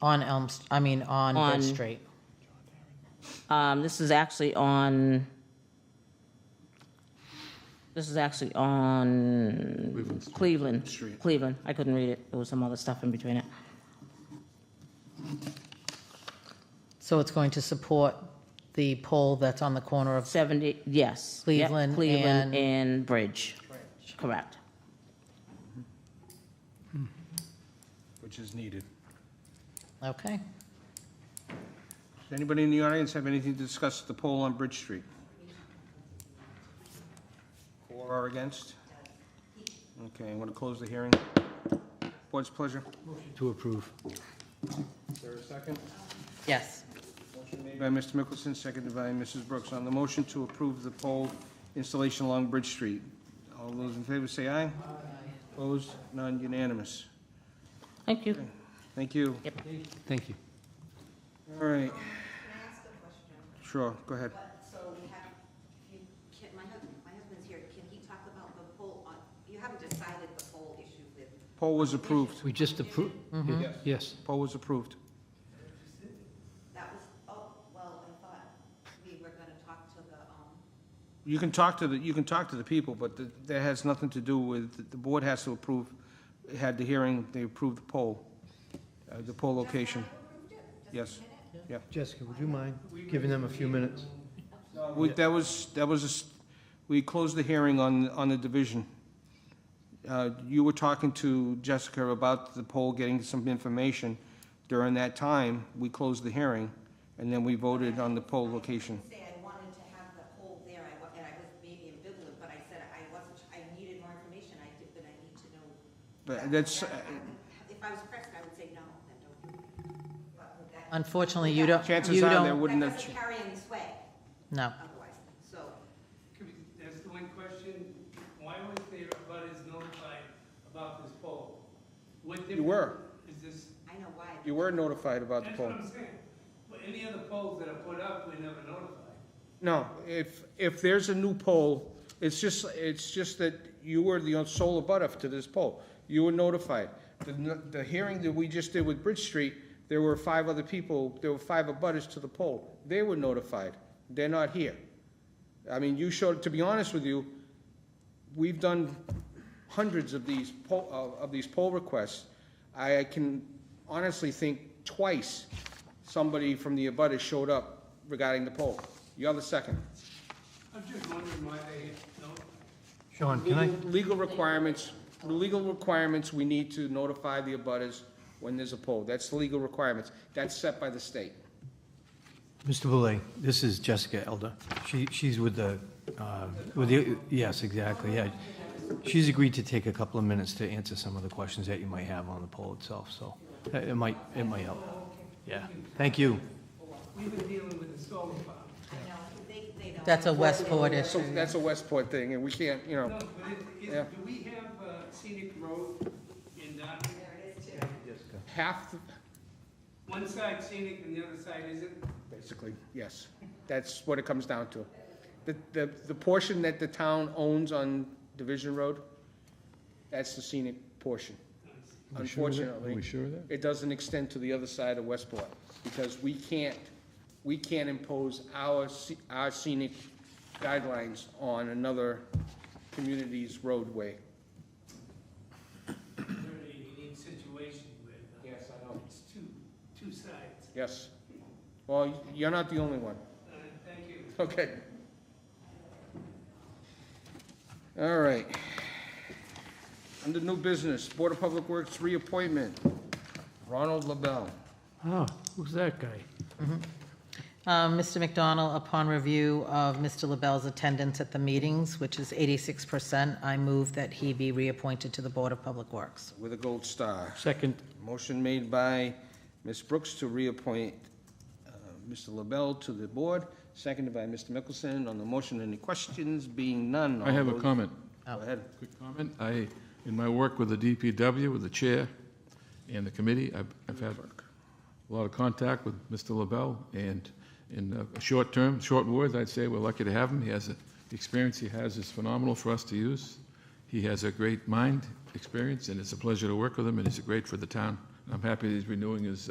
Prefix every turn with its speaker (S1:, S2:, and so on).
S1: On Elm, S- I mean, on
S2: On-
S1: Bridge Street.
S2: Um, this is actually on, this is actually on Cleveland.
S3: Street.
S2: Cleveland. I couldn't read it. There was some other stuff in between it.
S1: So it's going to support the pole that's on the corner of,
S2: 70, yes. Yep,
S1: Cleveland and-
S2: Cleveland and Bridge. Correct.
S3: which is needed.
S1: okay.
S3: Does anybody in the audience have anything to discuss the poll on Bridge Street? For or against? Okay, I'm going to close the hearing. Board's pleasure.
S4: To approve.
S3: Is there a second?
S1: Yes.
S3: Made by Mr. Mickelson, seconded by Mrs. Brooks. On the motion to approve the pole installation along Bridge Street. All those in favor say aye. Aye. Opposed? None unanimous.
S2: Thank you.
S3: Thank you.
S4: Thank you.
S3: All right. Sure, go ahead.
S5: But, so we have, you, can, my husband, my husband's here, can he talk about the poll on, you haven't decided the poll issue with,
S3: Poll was approved.
S4: We just approved. Yes.
S3: Poll was approved.
S5: that was, oh, well, I thought we were gonna talk to the, um,
S3: You can talk to the, you can talk to the people, but th- that has nothing to do with, the board has to approve, had the hearing, they approved the poll, uh, the poll location. Yes, yeah.
S4: Jessica, would you mind giving them a few minutes?
S3: Uh, We, that was, that was, a s- we closed the hearing on, on the division. Uh, You were talking to Jessica about the poll, getting some information. During that time, we closed the hearing, and then we voted on the poll location.
S5: say I wanted to have the poll there, I, wa- and I was maybe ambivalent, but I said I wasn't, I needed more information, I did, but I need to know.
S3: But that's, uh,
S5: If I was pressed, I would say no, then don't. do it. But would that-
S1: Unfortunately, you don't,
S3: chances
S1: you
S3: are there
S1: don't,
S3: wouldn't
S5: That
S3: have.
S5: doesn't carry any sway
S1: no.
S5: otherwise, so.
S6: Could we That's the one question, why was the abutters notified about this poll? What
S3: You were.
S6: difference Is this,
S5: I know why.
S3: You were notified about the
S6: that's what
S3: poll.
S6: I'm saying. But any other polls that are put up, we're never notified.
S3: No, if, if there's a new poll, it's just, it's just that you were the sole abutter to this poll. You were notified. The, n- the hearing that we just did with Bridge Street, there were five other people, there were five abutters to the poll. They were notified. They're not here. I mean, you showed, to be honest with you, we've done hundreds of these poll, uh, of, of these poll requests. I can honestly think twice somebody from the abutters showed up regarding the poll. You're the second.
S6: I'm just wondering why they notified.
S4: Sean, can I,
S3: Legal- Legal requirements, the legal requirements, we need to notify the abutters when there's a poll. That's the legal requirements. That's set by the state.
S4: Mr. Boulay, this is Jessica Elder. She, she's with the, uh, with the, yes, exactly, yeah. She's agreed to take a couple of minutes to answer some of the questions that you might have on the poll itself, so uh, it it might, it might help. Yeah, thank you.
S6: We've been dealing with the solar farm.
S5: No, they, they don't.
S1: That's a Westport
S3: So
S1: issue.
S3: that's a Westport thing, and we can't, you
S6: No,
S3: know,
S6: but it,
S3: Yeah.
S6: it, do we have uh, scenic road in Dotton?
S3: half, the-
S6: One side scenic and the other side isn't?
S3: basically, yes. That's what it comes down to. The, the, the portion that the town owns on Division Road, that's the scenic portion. Unfortunately. It doesn't extend to the other side of Westport, because we can't, we can't impose our, sce- our scenic guidelines on another community's roadway.
S6: They're in a unique situation with, uh,
S3: Yes, I know.
S6: it's two, two sides.
S3: Yes. Well, you're not the only one.
S6: Uh, Thank you.
S3: Okay. All right. Under new business, Board of Public Works reappointment, Ronald LaBelle.
S7: Oh, who's that guy?
S1: Um, Mr. McDonald, upon review of Mr. LaBelle's attendance at the meetings, which is 86%, I move that he be reappointed to the Board of Public Works.
S3: With a gold star.
S7: Second,
S3: Motion made by Ms. Brooks to reappoint uh, Mr. LaBelle to the board, seconded by Mr. Mickelson. On the motion, any questions? Being none.
S8: I have a
S3: all those-
S8: comment,
S3: Go ahead.
S8: quick comment. I, in my work with the DPW, with the chair and the committee, I've, I've had a lot of contact with Mr. LaBelle, and in a short term, short words, I'd say we're lucky to have him. He has, a- the experience he has is phenomenal for us to use. He has a great mind, experience, and it's a pleasure to work with him, and he's great for the town. I'm happy he's renewing his